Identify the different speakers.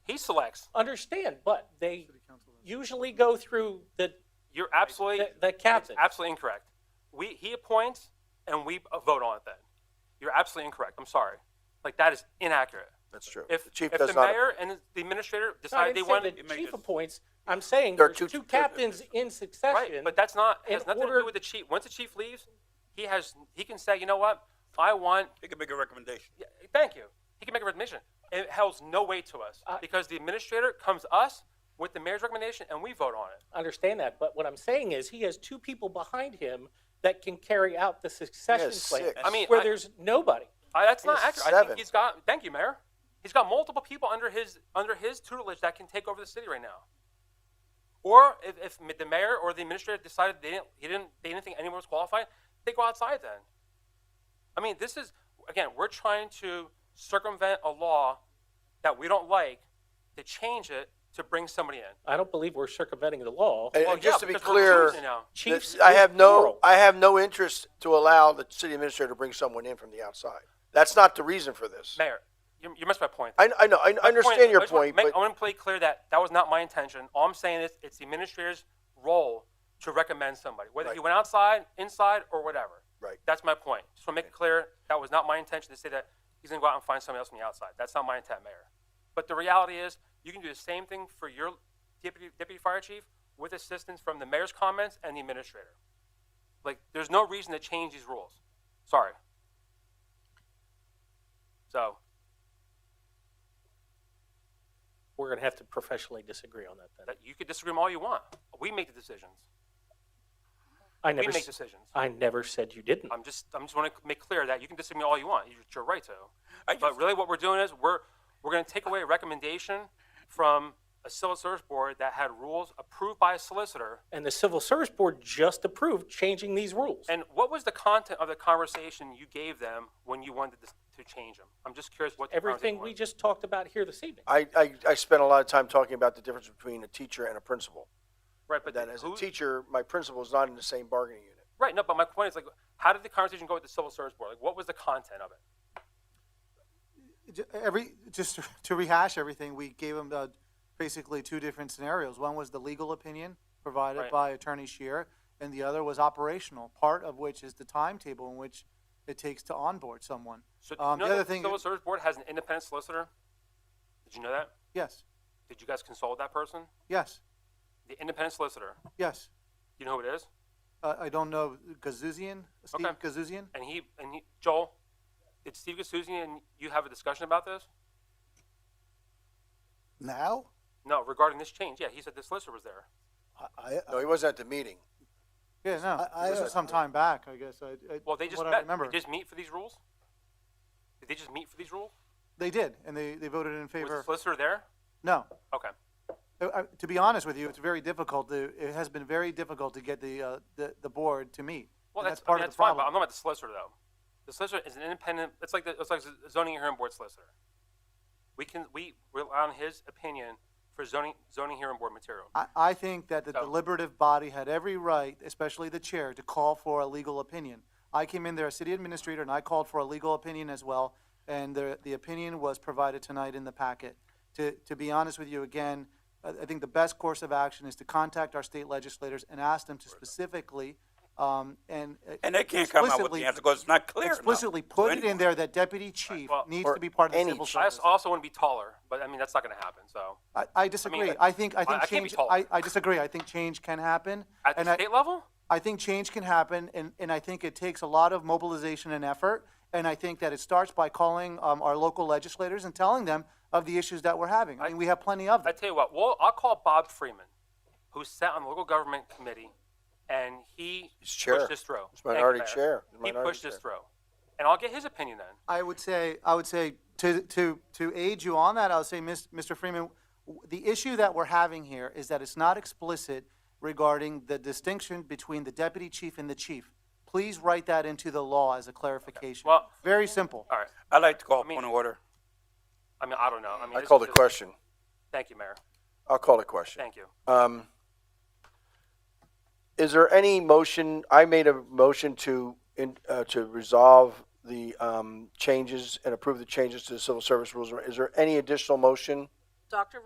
Speaker 1: selects.
Speaker 2: Understand, but they usually go through the,
Speaker 1: You're absolutely,
Speaker 2: the, the captain.
Speaker 1: absolutely incorrect. We, he appoints and we uh, vote on it then. You're absolutely incorrect. I'm sorry. Like, that is inaccurate.
Speaker 3: That's true.
Speaker 1: If,
Speaker 3: The
Speaker 1: if
Speaker 3: chief
Speaker 1: the
Speaker 3: does not,
Speaker 1: mayor and the administrator
Speaker 2: No, I
Speaker 1: decide they
Speaker 2: didn't
Speaker 1: want,
Speaker 2: say the chief appoints, I'm saying
Speaker 3: There are
Speaker 2: there's
Speaker 3: two-
Speaker 2: two
Speaker 3: there-
Speaker 2: captains in
Speaker 1: right,
Speaker 2: succession.
Speaker 1: but that's not,
Speaker 2: in
Speaker 1: has nothing to
Speaker 2: order-
Speaker 1: do with the chief. Once the chief leaves, he has, he can say, you know what? I want,
Speaker 4: He can make a recommendation.
Speaker 1: yeah, thank you. He can make a recommendation. It holds no weight to us
Speaker 2: I-
Speaker 1: because the administrator comes us with the mayor's recommendation and we vote on it.
Speaker 2: Understand that, but what I'm saying is he has two people behind him that can carry out the succession
Speaker 3: Yes,
Speaker 2: plan.
Speaker 3: six. I
Speaker 1: mean,
Speaker 2: Where
Speaker 1: I-
Speaker 2: there's nobody.
Speaker 1: I, that's
Speaker 3: He
Speaker 1: not
Speaker 3: has
Speaker 1: accurate. I
Speaker 3: seven.
Speaker 1: think he's got. Thank you, Mayor. He's got multiple people under his under his tutelage that can take over the city right now. Or if, if m- the mayor or the administrator decided they didn't he didn't they didn't think anyone was qualified, they go outside then. I mean, this is again we're trying to circumvent a law that we don't like to change it to bring somebody in.
Speaker 2: I don't believe we're circumventing the law.
Speaker 3: and
Speaker 1: Well,
Speaker 3: and just
Speaker 1: yeah,
Speaker 3: to be
Speaker 1: because we're
Speaker 3: clear,
Speaker 1: choosing now.
Speaker 2: Chiefs
Speaker 3: I
Speaker 2: is
Speaker 3: have no,
Speaker 2: plural.
Speaker 3: I have no interest to allow the city administrator to bring someone in from the outside. That's not the reason for this.
Speaker 1: Mayor, you, you missed my point.
Speaker 3: I, I know, I
Speaker 1: My
Speaker 3: understand
Speaker 1: I
Speaker 3: your
Speaker 1: just wanna
Speaker 3: point,
Speaker 1: make-
Speaker 3: but
Speaker 1: I want to play clear that that was not my intention. All I'm saying is it's the administrator's role to recommend somebody, whether he
Speaker 3: Right.
Speaker 1: went outside, inside, or whatever.
Speaker 3: Right.
Speaker 1: That's my point. Just want to make it clear that was not my intention to say that he's going to go out and find somebody else on the outside. That's not my intent, Mayor. But the reality is, you can do the same thing for your deputy, deputy fire chief with assistance from the mayor's comments and the administrator. Like, there's no reason to change these rules. Sorry. So,
Speaker 2: We're gonna have to professionally disagree on that then.
Speaker 1: that you could disagree with all you want. We make the decisions.
Speaker 2: I
Speaker 1: We
Speaker 2: never,
Speaker 1: make
Speaker 2: s-
Speaker 1: decisions.
Speaker 2: I never said you didn't.
Speaker 1: I'm just, I'm just want to make clear that you can disagree all you want. You- It's your right to.
Speaker 4: I just-
Speaker 1: But really, what we're doing is we're, we're going to take away a recommendation from a civil service board that had rules approved by a solicitor.
Speaker 2: And the Civil Service Board just approved changing these rules.
Speaker 1: And what was the content of the conversation you gave them when you wanted to, to change them? I'm just curious what the
Speaker 2: Everything
Speaker 1: conversation
Speaker 2: we
Speaker 1: was.
Speaker 2: just talked about here this evening.
Speaker 3: I, I, I spent a lot of time talking about the difference between a teacher and a principal.
Speaker 1: right, but
Speaker 3: But then
Speaker 1: the-
Speaker 3: as a
Speaker 1: who-
Speaker 3: teacher, my principal is not in the same bargaining unit.
Speaker 1: right, no. But my point is like, how did the conversation go with the civil service board? Like, what was the content of it?
Speaker 5: Ju- every just to rehash everything, we gave them uh, basically two different scenarios. One was the legal opinion provided
Speaker 1: Right.
Speaker 5: by Attorney Shear, and the other was operational. Part of which is the timetable in which it takes to onboard someone.
Speaker 1: So, did
Speaker 5: um,
Speaker 1: you know
Speaker 5: the other
Speaker 1: that
Speaker 5: thing,
Speaker 1: the civil service board has an independent solicitor. Did you know that?
Speaker 5: yes,
Speaker 1: Did you guys consult that person?
Speaker 5: yes,
Speaker 1: The independent solicitor.
Speaker 5: yes.
Speaker 1: You know who it is?
Speaker 5: Uh, I don't know Gazuzian, Steve
Speaker 1: Okay.
Speaker 5: Gazuzian.
Speaker 1: And he and he, Joel, did Steve Gasuzian and you have a discussion about this?
Speaker 6: Now?
Speaker 1: No, regarding this change. Yeah, he said the solicitor was there.
Speaker 6: I, I,
Speaker 3: No, he wasn't at the meeting.
Speaker 5: Yeah, no,
Speaker 6: I- uh, I-
Speaker 5: this was some time back, I guess. I, I,
Speaker 1: Well, they
Speaker 5: from
Speaker 1: just
Speaker 5: what
Speaker 1: met.
Speaker 5: I remember.
Speaker 1: Did they just meet for these rules? Did they just meet for these rules?
Speaker 5: They did, and they, they voted in
Speaker 1: Was the
Speaker 5: favor.
Speaker 1: solicitor there?
Speaker 5: No,
Speaker 1: Okay.
Speaker 5: Uh, uh, To be honest with you, it's very difficult. to- It has been very difficult to get the, uh, the, the board to meet.
Speaker 1: Well,
Speaker 5: And
Speaker 1: that's, I
Speaker 5: part
Speaker 1: mean,
Speaker 5: of
Speaker 1: that's
Speaker 5: the
Speaker 1: fine. But
Speaker 5: problem.
Speaker 1: I'm not about the solicitor though. The solicitor is an independent. It's like the, it's like the zoning hearing board solicitor. We can we rely on his opinion for zoning zoning hearing board material.
Speaker 5: I, I think that the
Speaker 1: So-
Speaker 5: deliberative body had every right, especially the chair, to call for a legal opinion. I came in there as city administrator and I called for a legal opinion as well, and the, the opinion was provided tonight in the packet. To, to be honest with you again, I, I think the best course of action is to contact our state legislators and ask them to specifically, um, and. uh,
Speaker 4: And they can't come out with
Speaker 5: explicitly-
Speaker 4: the answer because it's not clear enough
Speaker 5: Explicitly
Speaker 4: to
Speaker 5: put it in
Speaker 4: anyone.
Speaker 5: there that deputy chief
Speaker 1: well,
Speaker 5: needs
Speaker 3: or
Speaker 5: to be part of the
Speaker 3: any
Speaker 5: civil
Speaker 3: chief.
Speaker 1: I
Speaker 5: service.
Speaker 1: also- also want to be taller, but I mean that's not going to happen. So
Speaker 5: I, I disagree.
Speaker 1: like,
Speaker 5: I think, I
Speaker 1: I- I
Speaker 5: think
Speaker 1: can't be
Speaker 5: change,
Speaker 1: taller.
Speaker 5: I, I disagree. I think change can happen.
Speaker 1: at the
Speaker 5: and I-
Speaker 1: state level.
Speaker 5: I think change can happen, and, and I think it takes a lot of mobilization and effort. And I think that it starts by calling um, our local legislators and telling them of the issues that we're having. I mean, we have plenty of
Speaker 1: I
Speaker 5: them.
Speaker 1: tell you what, well, I'll call Bob Freeman, who sat on the local government committee, and he
Speaker 3: He's chair.
Speaker 1: pushed this through.
Speaker 3: He's
Speaker 1: Thank you,
Speaker 3: minority
Speaker 1: Mayor.
Speaker 3: chair. He's
Speaker 1: He
Speaker 3: minority
Speaker 1: pushed this
Speaker 3: chair.
Speaker 1: through, and I'll get his opinion then.
Speaker 5: I would say, I would say, to, to, to aid you on that, I would say, Mis- Mr. Freeman, w- the issue that we're having here is that it's not explicit regarding the distinction between the deputy chief and the chief. Please write that into the law as a clarification.
Speaker 1: Well-
Speaker 5: Very simple.
Speaker 1: All right.
Speaker 4: I'd like to call
Speaker 1: mean-
Speaker 4: point of order.
Speaker 1: I mean, I don't know. I mean,
Speaker 3: I
Speaker 1: this
Speaker 3: called
Speaker 1: is
Speaker 3: a
Speaker 1: just-
Speaker 3: question.
Speaker 1: Thank you, Mayor.
Speaker 3: I'll call a question.
Speaker 1: Thank you.
Speaker 3: Um, is there any motion, I made a motion to, in, uh, to resolve the, um, changes and approve the changes to the civil service rules. Is there any additional motion?
Speaker 7: Dr.